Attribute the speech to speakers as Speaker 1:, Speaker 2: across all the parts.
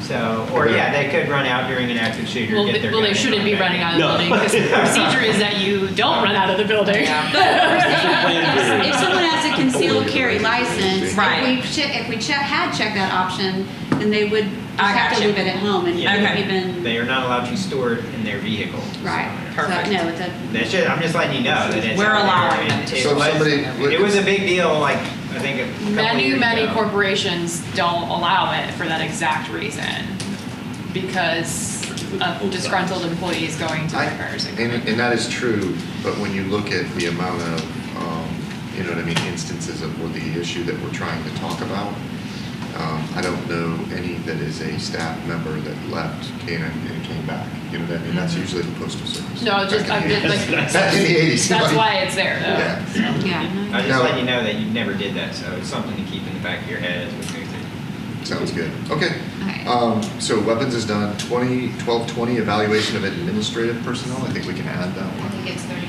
Speaker 1: So, or yeah, they could run out during an active shooter.
Speaker 2: Well,
Speaker 1: get
Speaker 2: they,
Speaker 1: their
Speaker 2: well, they
Speaker 1: gun and
Speaker 2: shouldn't
Speaker 1: run
Speaker 2: be
Speaker 1: back
Speaker 2: running
Speaker 1: in.
Speaker 2: out of the
Speaker 3: No.
Speaker 2: building because the procedure is that you don't run out of the building.
Speaker 4: If someone has a concealed carry license,
Speaker 5: Right.
Speaker 4: if we, che- if we che- had checked that option, then they would just
Speaker 5: I
Speaker 4: have to
Speaker 5: gotcha.
Speaker 4: leave it at home and
Speaker 1: Yeah.
Speaker 5: Okay.
Speaker 4: even,
Speaker 1: They are not allowed to store it in their vehicle.
Speaker 4: right.
Speaker 1: So,
Speaker 5: Perfect.
Speaker 4: So, no, it's a,
Speaker 1: That's just, I'm just letting you know that it's.
Speaker 5: We're
Speaker 1: out there,
Speaker 5: allowing
Speaker 1: and
Speaker 5: them
Speaker 1: it
Speaker 5: to.
Speaker 6: So
Speaker 1: was-
Speaker 6: somebody-
Speaker 1: It was a big deal, like, I think a couple
Speaker 2: many
Speaker 1: years
Speaker 2: many
Speaker 1: ago.
Speaker 2: corporations don't allow it for that exact reason because of disgruntled employees going to
Speaker 6: I-
Speaker 2: workers and
Speaker 6: And, and that is true, but when you look at the amount of, um, you know what I mean, instances of, or the issue that we're trying to talk about, um, I don't know any that is a staff member that left Canaan and came back, you know what I mean? That's usually the postal service.
Speaker 2: Mm-hmm. No, it's just-
Speaker 6: back in the
Speaker 2: I've been,
Speaker 6: 80s.
Speaker 2: like-
Speaker 6: Back in the eighties.
Speaker 2: that's why uh, it's there though
Speaker 6: Yeah.
Speaker 4: yeah.
Speaker 1: I'm just
Speaker 6: No.
Speaker 1: letting you know that you never did that, so it's something to keep in the back of your head as we go through.
Speaker 6: Sounds good. Okay.
Speaker 4: Okay.
Speaker 6: Um, so weapons is done. 20, 1220, evaluation of administrative personnel. I think we can add that
Speaker 7: I
Speaker 6: one.
Speaker 7: think it's 30.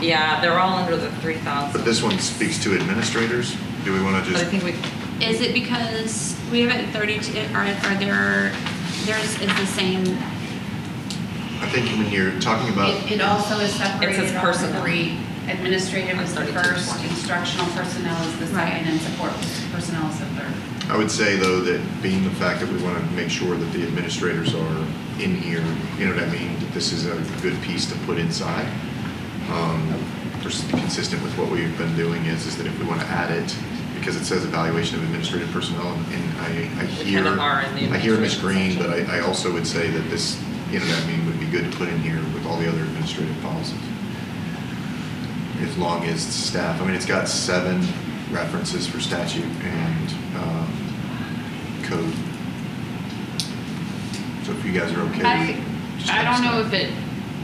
Speaker 5: Yeah, they're all under the three thousand.
Speaker 6: But this one speaks to administrators. Do we want to
Speaker 5: But I
Speaker 6: just?
Speaker 5: think we,
Speaker 4: Is it because we have it at thirty-two, are, are there, there's, is the same,
Speaker 6: I think when you're talking about
Speaker 7: It, it also is separated
Speaker 5: says
Speaker 7: on
Speaker 5: personnel.
Speaker 7: three. Administrative is the
Speaker 5: 32,
Speaker 7: first,
Speaker 5: 20.
Speaker 7: instructional personnel is the
Speaker 4: Right.
Speaker 7: second, and support personnel is the third.
Speaker 6: I would say, though, that being the fact that we want to make sure that the administrators are in here, you know what I mean, that this is a good piece to put inside. Um, pers- Consistent with what we've been doing is, is that if we want to add it, because it says evaluation of administrative personnel, and- and I, I
Speaker 5: We
Speaker 6: hear,
Speaker 5: kinda are in the
Speaker 6: I hear Ms.
Speaker 5: administrative
Speaker 6: Green, but
Speaker 5: section.
Speaker 6: I, I also would say that this, you know what I mean, would be good to put in here with all the other administrative policies. As long as staff, I mean, it's got seven references for statute and, um, code. So if you guys are okay.
Speaker 2: I-
Speaker 6: just
Speaker 2: I don't know if
Speaker 6: text
Speaker 2: it,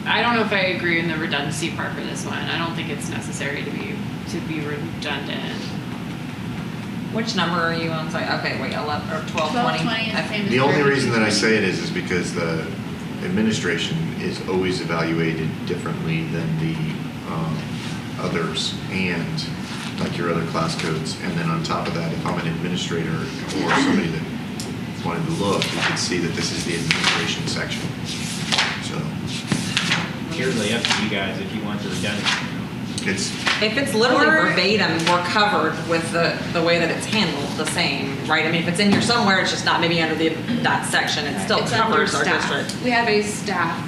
Speaker 2: I don't know if I agree in the redundancy part for this one. I don't think it's necessary to be, to be redundant.
Speaker 5: which number are you on? Sorry, okay, wait, eleven or twelve twenty.
Speaker 7: 1220 is same
Speaker 6: it. The only reason that I say it is, is because the administration is always evaluated differently than the um, others and like your other class codes. And then on top of that, if I'm an administrator or somebody that wanted to look, you could see that this is the administration section. So
Speaker 1: Purely up to you guys if you want the redundancy.
Speaker 6: it's,
Speaker 5: If it's literally
Speaker 4: Or-
Speaker 5: verbatim, we're covered with the, the way that it's handled, the same, right? I mean, if it's in here somewhere, it's just not maybe under the, that section, it still
Speaker 4: it's under
Speaker 5: covers our
Speaker 4: staff.
Speaker 5: district.
Speaker 4: We have a staff.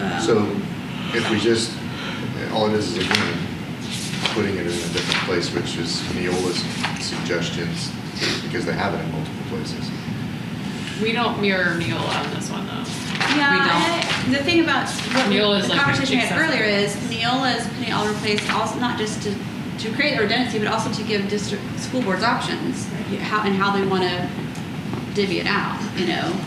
Speaker 4: um,
Speaker 6: So if we just, all it is is again, putting it in a different place, which is Neola's suggestions, because they have it in multiple places.
Speaker 2: We don't mirror Neola on this one though.
Speaker 4: Yeah,
Speaker 5: We don't.
Speaker 4: I- the thing about what we-
Speaker 2: Neola is
Speaker 4: the
Speaker 2: like
Speaker 4: conversation we had
Speaker 2: accessible.
Speaker 4: earlier is Neola is putting all replaced also not just to, to create the redundancy, but also to give district school boards options how and how they want to divvy it out. You know,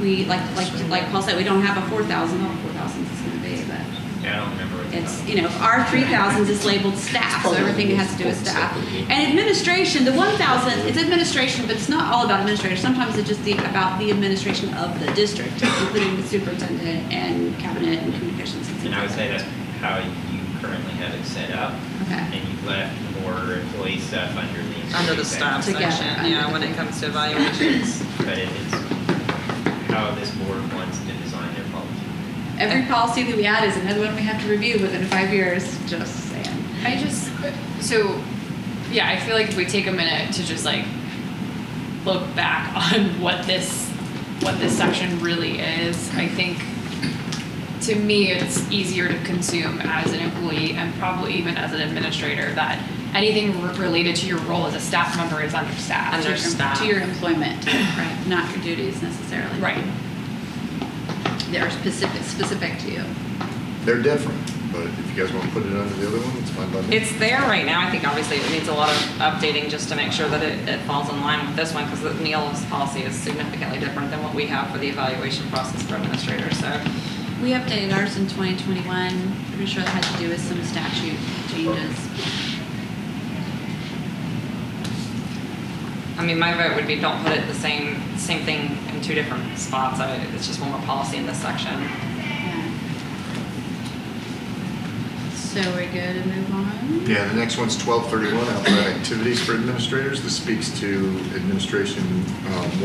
Speaker 4: we like like like Paul said, we don't have a four thousand. Well, four thousand is going to be, but
Speaker 1: Yeah, I don't remember what. the-
Speaker 4: it's you know our three thousands is labeled staff, so everything has to do with staff and administration. The one thousand it's administration, but it's not all about administrators. Sometimes it's just the about the administration of the district, including the superintendent and cabinet and communications. things
Speaker 1: And I would
Speaker 4: like
Speaker 1: say
Speaker 4: that.
Speaker 1: that's how you currently have it set up.
Speaker 4: Okay.
Speaker 1: And you've left more employee stuff under the.
Speaker 5: Under the staff
Speaker 4: Together,
Speaker 5: section,
Speaker 4: under
Speaker 5: yeah,
Speaker 4: the
Speaker 5: when it
Speaker 4: thing.
Speaker 5: comes to evaluations.
Speaker 1: But it is how this board wants to design their policy.
Speaker 4: Every policy that we add is another one we have to review within five years. Just saying.
Speaker 2: I just, so, yeah, I feel like if we take a minute to just like look back on what this, what this section really is, I think to me, it's easier to consume as an employee and probably even as an administrator that anything re- related to your role as a staff member is under staff.
Speaker 5: Under-
Speaker 4: To your-
Speaker 5: staff.
Speaker 4: To your employment, right? Not your duties necessarily.
Speaker 2: Right.
Speaker 4: That are specific specific to you.
Speaker 6: They're different, but if you guys want to put it under the other one, it's fine by me.
Speaker 5: It's there right now, I think obviously it needs a lot of updating just to make sure that it, it falls in line with this one, because Neola's policy is significantly different than what we have for the evaluation process for administrators, so.
Speaker 4: We updated ours in 2021. I'm pretty sure that had to do with some statute changes.
Speaker 5: I mean, my vote would be don't put it the same, same thing in two different spots, I, it's just one more policy in this section.
Speaker 4: So we're good to move on?
Speaker 6: Yeah, the next one's 1231, outside activities for administrators. This speaks to administration um,